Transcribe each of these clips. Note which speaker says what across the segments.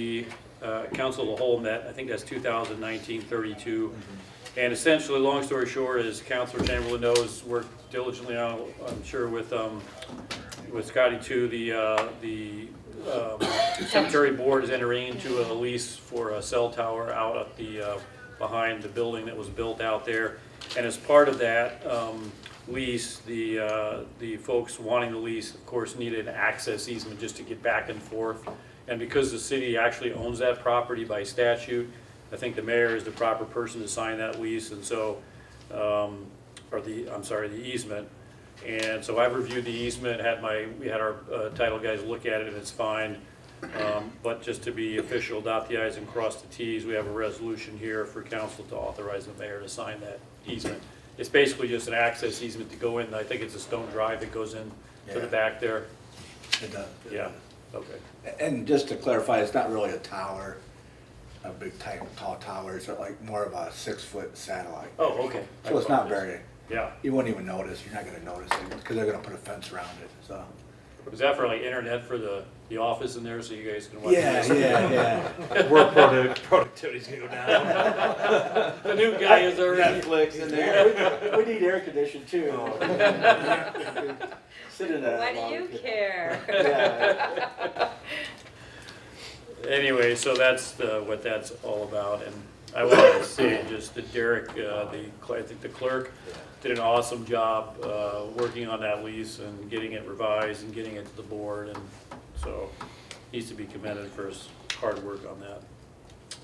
Speaker 1: The uh, Council of the Whole met, I think that's 2019-32. And essentially, long story short, as Councilor Chamberlain knows, worked diligently, on- I'm sure, with, um, with Scotty too, the, uh, the um, cemetery board is entering into a lease for a cell tower out at the, uh, behind the building that was built out there. And as part of that um, lease, the, uh, the folks wanting the lease, of course, needed access easement just to get back and forth. And because the city actually owns that property by statute, I think the mayor is the proper person to sign that lease, and so, um, or the, I'm sorry, the easement. And so I've reviewed the easement, had my, we had our uh, title guys look at it, and it's fine. Um, But just to be official, dot the i's and cross the t's, we have a resolution here for council to authorize the mayor to sign that easement. It's basically just an access easement to go in, I think it's a stone drive that goes in to the
Speaker 2: Yeah.
Speaker 1: back there.
Speaker 2: It does.
Speaker 1: Yeah, okay.
Speaker 2: And just to clarify, it's not really a tower, a big type tall tower, it's like more of a six-foot satellite.
Speaker 1: Oh, okay.
Speaker 2: So it's not very,
Speaker 1: Yeah.
Speaker 2: you wouldn't even notice, you're not gonna notice it, because they're gonna put a fence around it, so.
Speaker 1: Was that for like internet for the, the office in there so you guys can watch?
Speaker 2: Yeah, yeah, yeah.
Speaker 3: Work product, productivity's gonna go down.
Speaker 1: The new guy is already,
Speaker 3: Netflix in
Speaker 4: Yeah, we, we need air conditioning too. Sit in that.
Speaker 5: Why do you care?
Speaker 4: Yeah,
Speaker 1: anyway, so that's the, what that's all about. And I wanted to say just that Derek, uh, the, cl- I think the clerk, did an awesome job, uh, working on that lease and getting it revised and getting it to the board. And so needs to be commended for his hard work on that.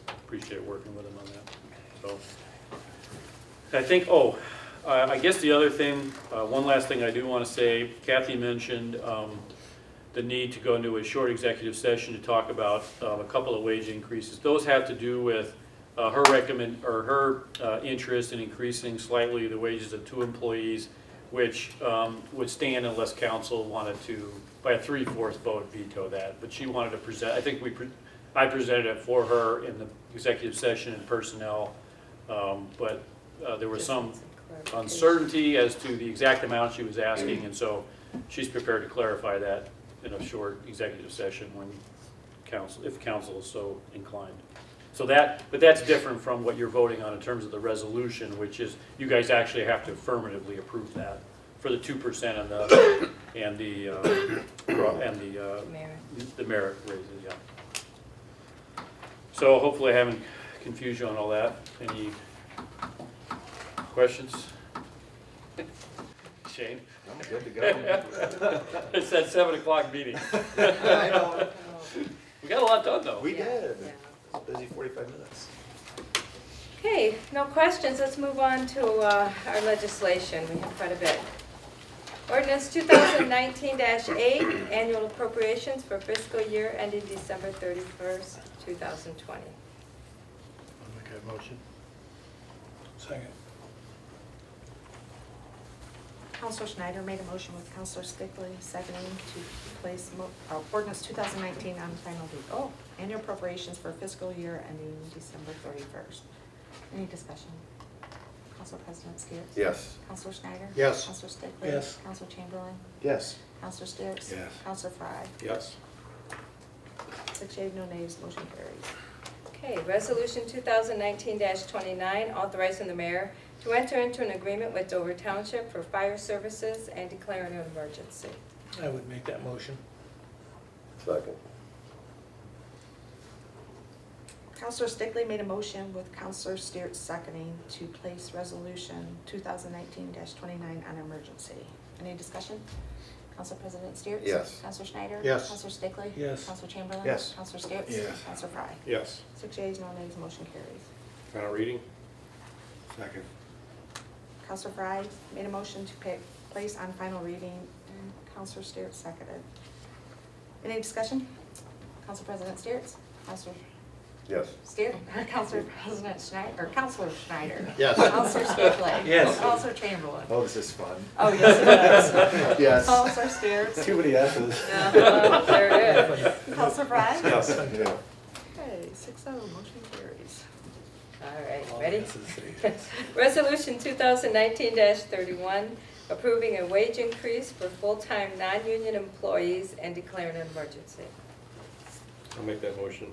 Speaker 1: Appreciate working with him on that, so. I think, oh, I I guess the other thing, uh, one last thing I do want to say, Kathy mentioned um, the need to go into a short executive session to talk about um, a couple of wage increases. Those have to do with uh, her recommend, or her uh, interest in increasing slightly the wages of two employees, which um, would stand unless council wanted to, by a three-fourths vote, veto that. But she wanted to present, I think we, pre- I presented it for her in the executive session in personnel, um, but uh, there was some uncertainty as to the exact amount she was asking, and so she's prepared to clarify that in a short executive session when council, if council is so inclined. So that, but that's different from what you're voting on in terms of the resolution, which is, you guys actually have to affirmatively approve that for the two percent and the, and the, uh, and the, uh,
Speaker 5: Mayor.
Speaker 1: the merit raises, yeah. So hopefully I haven't confused you on all that. Any questions? Shane?
Speaker 3: I'm good to go.
Speaker 1: It's that seven o'clock meeting.
Speaker 3: I know,
Speaker 1: We got a lot done, though.
Speaker 3: we
Speaker 5: Yeah,
Speaker 3: did.
Speaker 5: yeah.
Speaker 3: Busy forty-five minutes.
Speaker 5: Okay, no questions, let's move on to uh, our legislation, we have quite a bit. Ordinance 2019-8, annual appropriations for fiscal year ending December 31st, 2020.
Speaker 2: Second.
Speaker 6: Counselor Schneider made a motion with Counselor Stickley seconding to place mo- uh, ordinance 2019 on final read. Oh, annual appropriations for fiscal year ending December 31st. Any discussion? Council President Steers?
Speaker 3: Yes.
Speaker 6: Counselor Schneider?
Speaker 3: Yes.
Speaker 6: Counselor Stickley?
Speaker 2: Yes.
Speaker 6: Counselor Chamberlain?
Speaker 3: Yes.
Speaker 6: Counselor Steers?
Speaker 2: Yes.
Speaker 6: Counselor Fry?
Speaker 3: Yes.
Speaker 6: Six yea, no nays, motion carries.
Speaker 5: Okay, Resolution 2019-29, authorizing the mayor to enter into an agreement with Dover Township for fire services and declaring an emergency.
Speaker 7: I would make that motion.
Speaker 3: Second.
Speaker 6: Counselor Stickley made a motion with Counselor Steers seconding to place resolution 2019-29 on emergency. Any discussion? Council President Steers?
Speaker 3: Yes.
Speaker 6: Counselor Schneider?
Speaker 3: Yes.
Speaker 6: Counselor Stickley?
Speaker 7: Yes.
Speaker 6: Counselor Chamberlain?
Speaker 3: Yes.
Speaker 6: Counselor Steers?
Speaker 2: Yes.
Speaker 6: Counselor Fry?
Speaker 3: Yes.
Speaker 6: Six yeas, no nays, motion carries.
Speaker 3: Final reading?
Speaker 2: Second.
Speaker 6: Counselor Fry made a motion to pa- place on final reading, and Counselor Steers seconded. Any discussion? Council President Steers? Counselor
Speaker 3: Yes.
Speaker 6: Steer, uh, Counselor President Schneider, or Counselor Schneider.
Speaker 3: Yes.
Speaker 6: Counselor Stickley.
Speaker 3: Yes.
Speaker 6: Counselor Chamberlain.
Speaker 3: Oh, this is fun.
Speaker 6: Oh, yes, it is.
Speaker 5: Oh,
Speaker 3: Yes.
Speaker 6: Counselor Steers.
Speaker 2: Too many S's.
Speaker 5: Uh,
Speaker 2: Uh-huh.
Speaker 5: There it is.
Speaker 6: Counselor Bryan.
Speaker 3: Yes. Yeah.
Speaker 6: Okay, six oh, motion carries.
Speaker 5: All right, ready? Resolution 2019-31, approving a wage increase for full-time non-union employees and declaring an emergency.
Speaker 8: I'll make that motion.